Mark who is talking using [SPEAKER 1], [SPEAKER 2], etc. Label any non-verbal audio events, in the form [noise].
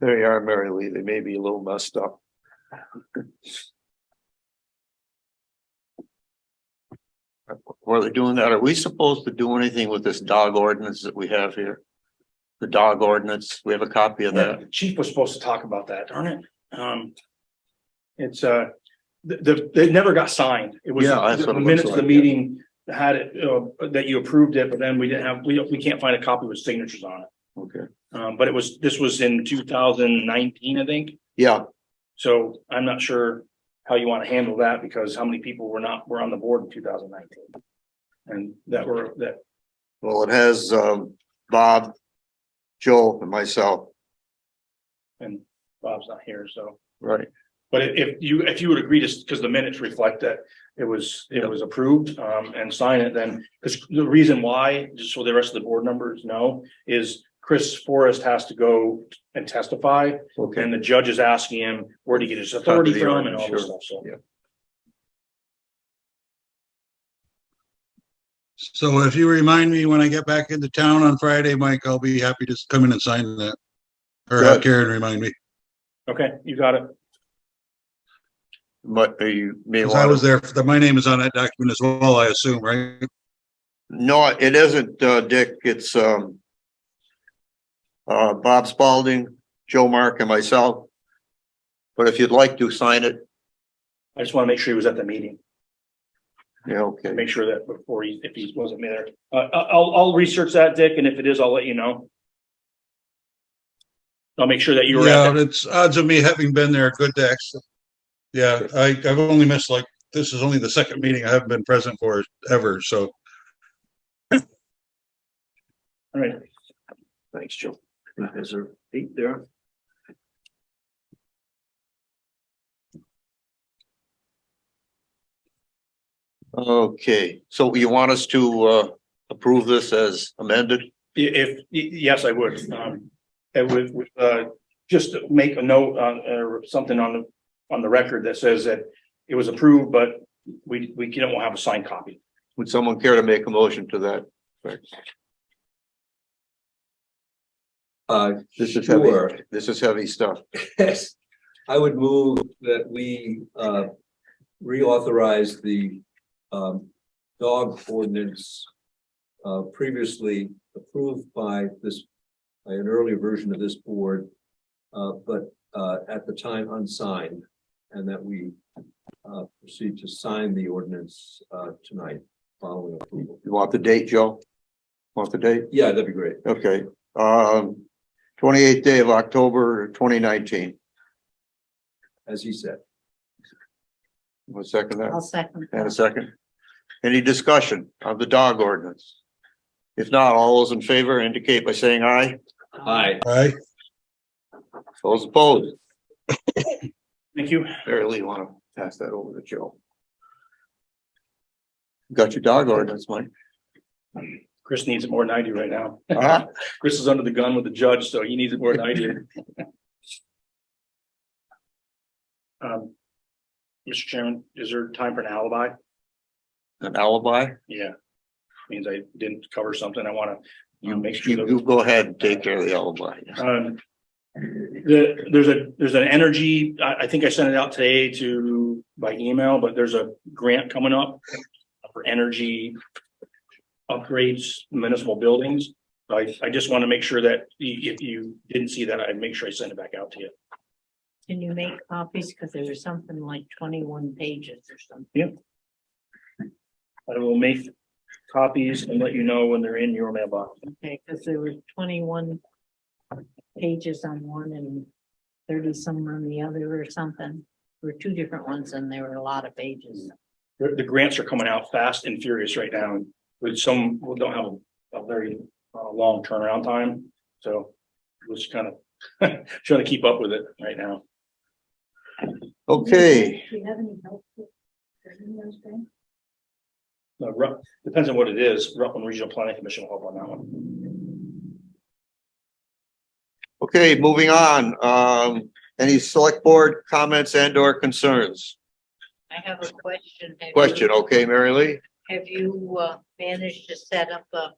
[SPEAKER 1] They are Mary Lee. They may be a little messed up. Were they doing that? Are we supposed to do anything with this dog ordinance that we have here? The dog ordinance, we have a copy of
[SPEAKER 2] Yeah,
[SPEAKER 1] that.
[SPEAKER 2] the Chief was supposed to talk about that, darn it. Um. It's uh, the, the, it never got signed. It was
[SPEAKER 1] Yeah, that's
[SPEAKER 2] the
[SPEAKER 1] what it looks
[SPEAKER 2] minutes of the
[SPEAKER 1] like,
[SPEAKER 2] meeting had it, uh, that you approved it, but then we didn't have, we don't, we can't find a copy with signatures on it.
[SPEAKER 1] Okay.
[SPEAKER 2] Um, but it was, this was in two thousand nineteen, I think.
[SPEAKER 1] Yeah,
[SPEAKER 2] So I'm not sure how you want to handle that because how many people were not, were on the board in two thousand nineteen? And that were, that,
[SPEAKER 1] well, it has um Bob, Joel and myself.
[SPEAKER 2] and Bob's not here, so.
[SPEAKER 1] Right.
[SPEAKER 2] But i- if you, if you would agree to, because the minutes reflect that it was, it was approved, um, and sign it then, because the reason why, just so the rest of the board members know, is Chris Forrest has to go and testify,
[SPEAKER 1] Okay.
[SPEAKER 2] and the judge is asking him where to get his authority
[SPEAKER 1] the
[SPEAKER 2] from and all
[SPEAKER 1] order,
[SPEAKER 2] this
[SPEAKER 1] sure.
[SPEAKER 2] stuff, so.
[SPEAKER 3] So if you remind me when I get back into town on Friday, Mike, I'll be happy to come in and sign that. Or have
[SPEAKER 1] Good.
[SPEAKER 3] Karen remind me,
[SPEAKER 2] Okay, you got it.
[SPEAKER 1] But you may
[SPEAKER 3] 'Cause I was
[SPEAKER 1] want,
[SPEAKER 3] there, for the- my name is on that document as well, I assume, right?
[SPEAKER 1] no, it isn't, uh, Dick, it's um. Uh, Bob Spalding, Joe Mark and myself. But if you'd like to sign it,
[SPEAKER 2] I just want to make sure he was at the meeting,
[SPEAKER 1] yeah, okay.
[SPEAKER 2] make sure that before he, if he wasn't there. Uh, I- I'll, I'll research that, Dick, and if it is, I'll let you know. I'll make sure that you were at that
[SPEAKER 3] Yeah, it's odds of me having been there, good to actually. Yeah, I, I've only missed like, this is only the second meeting I haven't been present for ever, so.
[SPEAKER 2] All right.
[SPEAKER 1] Thanks, Joe. Is there eight there? Okay, so you want us to uh approve this as amended?
[SPEAKER 2] I- If, y- yes, I would. Um, and with, with, uh, just to make a note on, or something on the, on the record that says that it was approved, but we, we don't have a signed copy.
[SPEAKER 1] Would someone care to make a motion to that?
[SPEAKER 4] Uh, [laughs]
[SPEAKER 1] This is heavy,
[SPEAKER 4] sure,
[SPEAKER 1] this is heavy stuff.
[SPEAKER 4] yes. I would move that we, uh, reauthorize the, um, dog ordinance uh, previously approved by this, by an earlier version of this board, uh, but, uh, at the time unsigned, and that we, uh, proceed to sign the ordinance, uh, tonight following approval.
[SPEAKER 1] You want the date, Joe? Want the date?
[SPEAKER 4] Yeah, that'd be great.
[SPEAKER 1] Okay, um, twenty-eighth day of October, twenty nineteen.
[SPEAKER 4] As he said,
[SPEAKER 1] One second that.
[SPEAKER 5] I'll second.
[SPEAKER 1] And a second. Any discussion of the dog ordinance? If not, all those in favor indicate by saying aye.
[SPEAKER 4] hi,
[SPEAKER 3] Right?
[SPEAKER 1] Those opposed,
[SPEAKER 2] Thank you.
[SPEAKER 1] barely want to pass that over to Joe. Got your dog ordinance,
[SPEAKER 2] [laughs]
[SPEAKER 1] Mike.
[SPEAKER 2] Chris needs it more than I do right now.
[SPEAKER 1] Uh-huh.
[SPEAKER 2] Chris is under the gun with the judge, so he needs it more than I do. [laughs] Um, Mr. Chairman, is there time for an alibi?
[SPEAKER 1] An alibi?
[SPEAKER 2] Yeah. Means I didn't cover something. I want to, you
[SPEAKER 1] You,
[SPEAKER 2] know, make sure. that-
[SPEAKER 1] you go ahead and take care of the alibi.
[SPEAKER 2] Um, the, there's a, there's an energy, I, I think I sent it out today to, by email, but there's a grant coming up for energy upgrades municipal buildings. I, I just want to make sure that y- if you didn't see that, I'd make sure I send it back out to you.
[SPEAKER 5] Can you make copies? Because there was something like twenty-one pages or something.
[SPEAKER 2] I will make copies and let you know when they're in your mailbox.
[SPEAKER 5] Okay, because there were twenty-one pages on one and thirty-some on the other or something. There were two different ones and there were a lot of pages.
[SPEAKER 2] The, the grants are coming out fast and furious right now, with some, we don't have a very, uh, long turnaround time, so. we're just kind of, [laughs] trying to keep up with it right now.
[SPEAKER 1] Okay,
[SPEAKER 5] Do you have any help? with those things?
[SPEAKER 2] Uh, Ru- depends on what it is, Rutland Regional Planning Commission will help on that one.
[SPEAKER 1] okay, moving on. Um, any select board comments and or concerns?
[SPEAKER 5] I have a question. Have you-
[SPEAKER 1] Question, okay, Mary Lee?
[SPEAKER 5] Have you, uh, managed to set up a